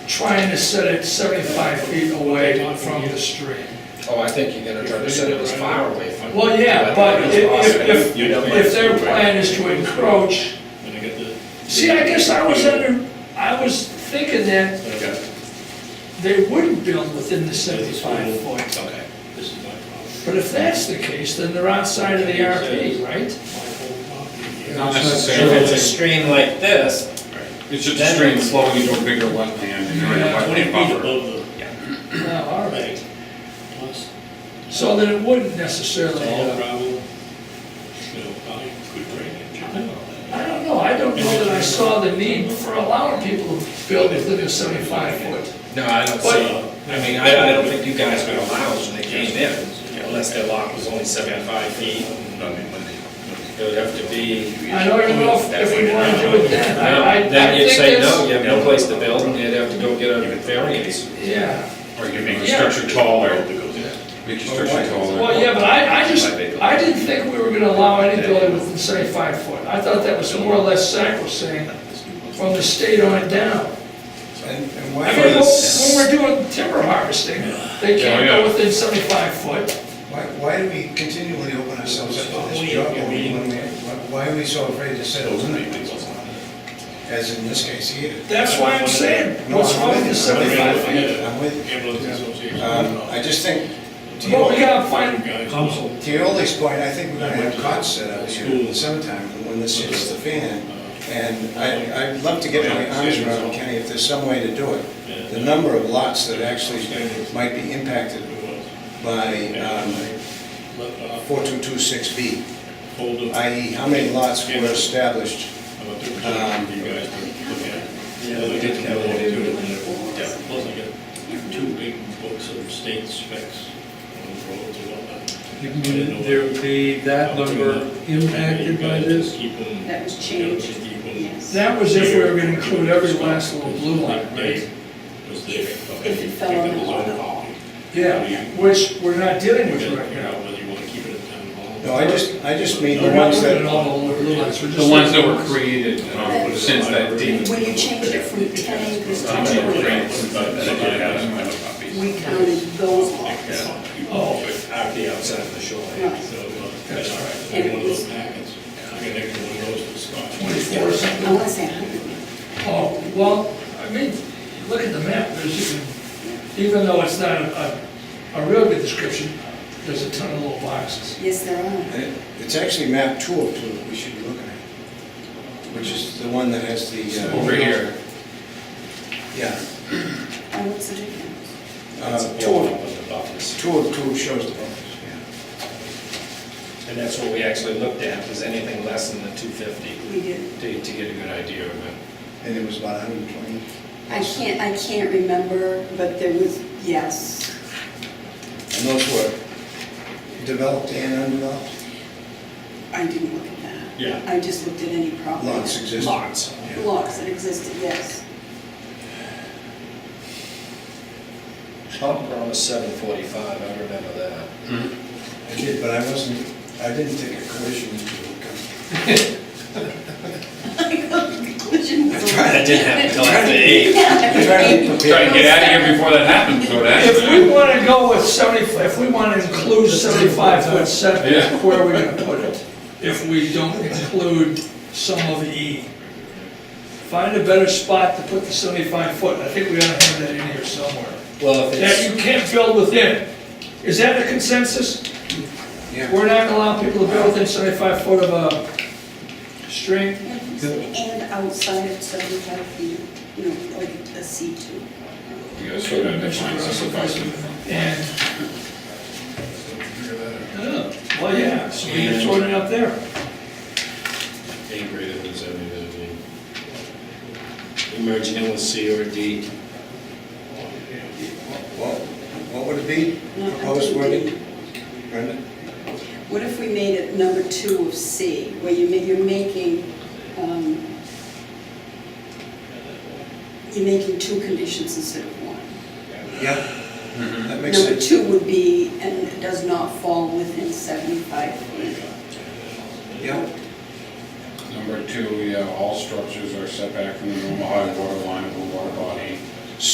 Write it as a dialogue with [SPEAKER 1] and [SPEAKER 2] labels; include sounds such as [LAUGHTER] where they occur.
[SPEAKER 1] trying to set it 75 feet away from the street.
[SPEAKER 2] Oh, I think you're gonna try to set it as far away from.
[SPEAKER 1] Well, yeah, but
[SPEAKER 2] That's
[SPEAKER 1] if,
[SPEAKER 2] possible.
[SPEAKER 1] if, if if their plan is to encroach,
[SPEAKER 3] When I get the,
[SPEAKER 1] see, I guess I was under, I was thinking that
[SPEAKER 3] okay,
[SPEAKER 1] they wouldn't build within the 75 foot.
[SPEAKER 3] okay, this is my problem.
[SPEAKER 1] But if that's the case, then they're outside of the RP, right?
[SPEAKER 3] My whole property here.
[SPEAKER 4] Not
[SPEAKER 2] If
[SPEAKER 4] necessarily,
[SPEAKER 2] it's a stream like this,
[SPEAKER 4] it's just a stream flowing into a bigger wetland and you're in a
[SPEAKER 3] Yeah, Twenty
[SPEAKER 4] wetland
[SPEAKER 3] feet
[SPEAKER 4] buffer.
[SPEAKER 3] above the
[SPEAKER 1] No, all right.
[SPEAKER 3] plus,
[SPEAKER 1] So then it wouldn't
[SPEAKER 3] it's
[SPEAKER 1] necessarily,
[SPEAKER 3] all
[SPEAKER 1] uh,
[SPEAKER 3] gravel, you know, probably good drainage. I know that.
[SPEAKER 1] I don't know, I don't know that I saw the need for allowing people to build within the 75 foot.
[SPEAKER 2] no, I don't see, I mean, I, I don't think you guys would allow us when they came in, unless their lot was only seventy-five feet. It would have to be.
[SPEAKER 1] I don't even know if- if we want to do it then. I- I- I
[SPEAKER 2] Then you'd
[SPEAKER 1] think
[SPEAKER 2] say,
[SPEAKER 1] that's-
[SPEAKER 2] no, you have no place to build, and you'd have to go get a variance.
[SPEAKER 1] Yeah.
[SPEAKER 4] Or you can make your
[SPEAKER 1] Yeah.
[SPEAKER 4] structure taller, make your structure taller.
[SPEAKER 1] Well, yeah, but I, I just, I didn't think we were gonna allow any building within 75 foot. I thought that was more or less sacrosanct from the state on down.
[SPEAKER 5] And and
[SPEAKER 1] I
[SPEAKER 5] why,
[SPEAKER 1] mean, when when we're doing timber harvesting, they can't
[SPEAKER 4] Yeah, yeah.
[SPEAKER 1] go within 75 foot.
[SPEAKER 5] why, why do we continually open ourselves up to this trouble? when we- Why are we so afraid to set a limit? As in this case here.
[SPEAKER 1] That's why I'm saying, what's wrong with the 75 feet?
[SPEAKER 5] I'm with you.
[SPEAKER 3] Ambulance association.
[SPEAKER 5] Um, I just think, to
[SPEAKER 1] Well, we
[SPEAKER 5] your,
[SPEAKER 1] gotta find,
[SPEAKER 3] Guys, know.
[SPEAKER 5] to your Ollie's point, I think we're gonna have cots set up here in the summertime when this hits the fan. And I, I'd love to get my arms around, Kenny, if there's some way to do it. The number of lots that actually might be impacted by, um,
[SPEAKER 3] Left off,
[SPEAKER 5] 4226B.
[SPEAKER 3] uh, fold up.
[SPEAKER 5] i.e. e, how many lots were established.
[SPEAKER 3] I'm a third
[SPEAKER 5] um,
[SPEAKER 3] time for you guys to look at. Yeah, they get to know what to do. Yeah, plus I got two big books of state specs on the roads and whatnot.
[SPEAKER 6] There would be that number impacted by this?
[SPEAKER 7] That was changed, yes.
[SPEAKER 1] that was if we were gonna include every last little blue line, right?
[SPEAKER 7] If- if it fell on the wall.
[SPEAKER 1] Yeah, which we're not dealing with
[SPEAKER 3] Figure
[SPEAKER 1] right
[SPEAKER 3] out
[SPEAKER 1] now.
[SPEAKER 3] whether you want to keep it at town hall.
[SPEAKER 5] No, I just, I just mean
[SPEAKER 1] We're
[SPEAKER 5] the
[SPEAKER 1] not
[SPEAKER 5] ones
[SPEAKER 1] looking at
[SPEAKER 5] that,
[SPEAKER 1] all the blue lines, we're just.
[SPEAKER 4] The ones that
[SPEAKER 1] looking
[SPEAKER 4] were
[SPEAKER 1] at-
[SPEAKER 4] created um, since that date.
[SPEAKER 7] When you change it from 10 acres to
[SPEAKER 4] Um, that were
[SPEAKER 7] 2
[SPEAKER 4] created
[SPEAKER 7] acres,
[SPEAKER 4] since that date.
[SPEAKER 7] we counted those lots.
[SPEAKER 1] Oh,
[SPEAKER 2] Out the outside of the shoreline.
[SPEAKER 7] Right.
[SPEAKER 3] So, uh, that's all right, one of those packets. I mean, they can one of those to Scott.
[SPEAKER 1] 24 or something.
[SPEAKER 7] Unless they hundred.
[SPEAKER 1] Oh, well, I mean, look at the map, there's even, even though it's not a, a a real good description, there's a ton of little boxes.
[SPEAKER 7] Yes, there are.
[SPEAKER 5] it's actually map 202 that we should be looking at, which is the one that has the. uh,
[SPEAKER 4] Over here.
[SPEAKER 5] Yeah.
[SPEAKER 7] Oh, what's the difference?
[SPEAKER 2] It's a
[SPEAKER 5] Uh,
[SPEAKER 2] wall
[SPEAKER 5] 202
[SPEAKER 2] up in the buffers.
[SPEAKER 5] 202 shows the buffers, yeah.
[SPEAKER 2] And that's what we actually looked at, was anything less than the two fifty,
[SPEAKER 7] We did.
[SPEAKER 2] to, to get a good idea of it.
[SPEAKER 5] And it was about 120.
[SPEAKER 7] I can't, I can't remember, but there was, yes.
[SPEAKER 5] And those were developed and undeveloped
[SPEAKER 7] I didn't look at that.
[SPEAKER 2] Yeah.
[SPEAKER 7] I just looked at any property.
[SPEAKER 5] lots existed.
[SPEAKER 2] Lots.
[SPEAKER 5] Yeah.
[SPEAKER 7] Lots that existed, yes. [LAUGHS]
[SPEAKER 2] Tom promised seven forty-five, I remember that.
[SPEAKER 5] I did, but I wasn't, I didn't take a collision into account.
[SPEAKER 7] Conclusion was.
[SPEAKER 2] I didn't have
[SPEAKER 7] [LAUGHS]
[SPEAKER 2] it till after eight.
[SPEAKER 5] I tried to be
[SPEAKER 4] Try to
[SPEAKER 5] prepared.
[SPEAKER 4] get out of here before that happens, so
[SPEAKER 1] If we
[SPEAKER 4] that's.
[SPEAKER 1] wanna go with seventy, if we wanna include seventy-five foot
[SPEAKER 4] Yeah.
[SPEAKER 1] setback, where are we gonna put it? If we don't include some of the E? Find a better spot to put the seventy-five foot, I think we ought to have that in here somewhere.
[SPEAKER 2] Well, if
[SPEAKER 1] That
[SPEAKER 2] it's,
[SPEAKER 1] you can't build within, is that the consensus?
[SPEAKER 5] Yeah.
[SPEAKER 1] We're not gonna allow people to build within seventy-five foot of a string?
[SPEAKER 7] And outside of seventy-five feet, you know, like a C two.
[SPEAKER 4] You guys sort of define suffice.
[SPEAKER 1] And. Oh, Well, yeah, so we can sort it up there.
[SPEAKER 2] A greater than seventy, that'd be. Emerging in with C or D.
[SPEAKER 5] What what would it be?
[SPEAKER 7] No, I
[SPEAKER 5] Proposed
[SPEAKER 7] didn't do
[SPEAKER 5] wording? Brenda?
[SPEAKER 7] What if we made it number two of C, where you ma- you're making, um, you're making two conditions instead of one?
[SPEAKER 5] Yeah,
[SPEAKER 2] Mm-hmm.
[SPEAKER 5] that makes
[SPEAKER 7] Number
[SPEAKER 5] sense.
[SPEAKER 7] two would be, and it does not fall within 75 feet.
[SPEAKER 5] Yeah,
[SPEAKER 4] Number two, yeah, all structures are set back from the normal high water line of the water body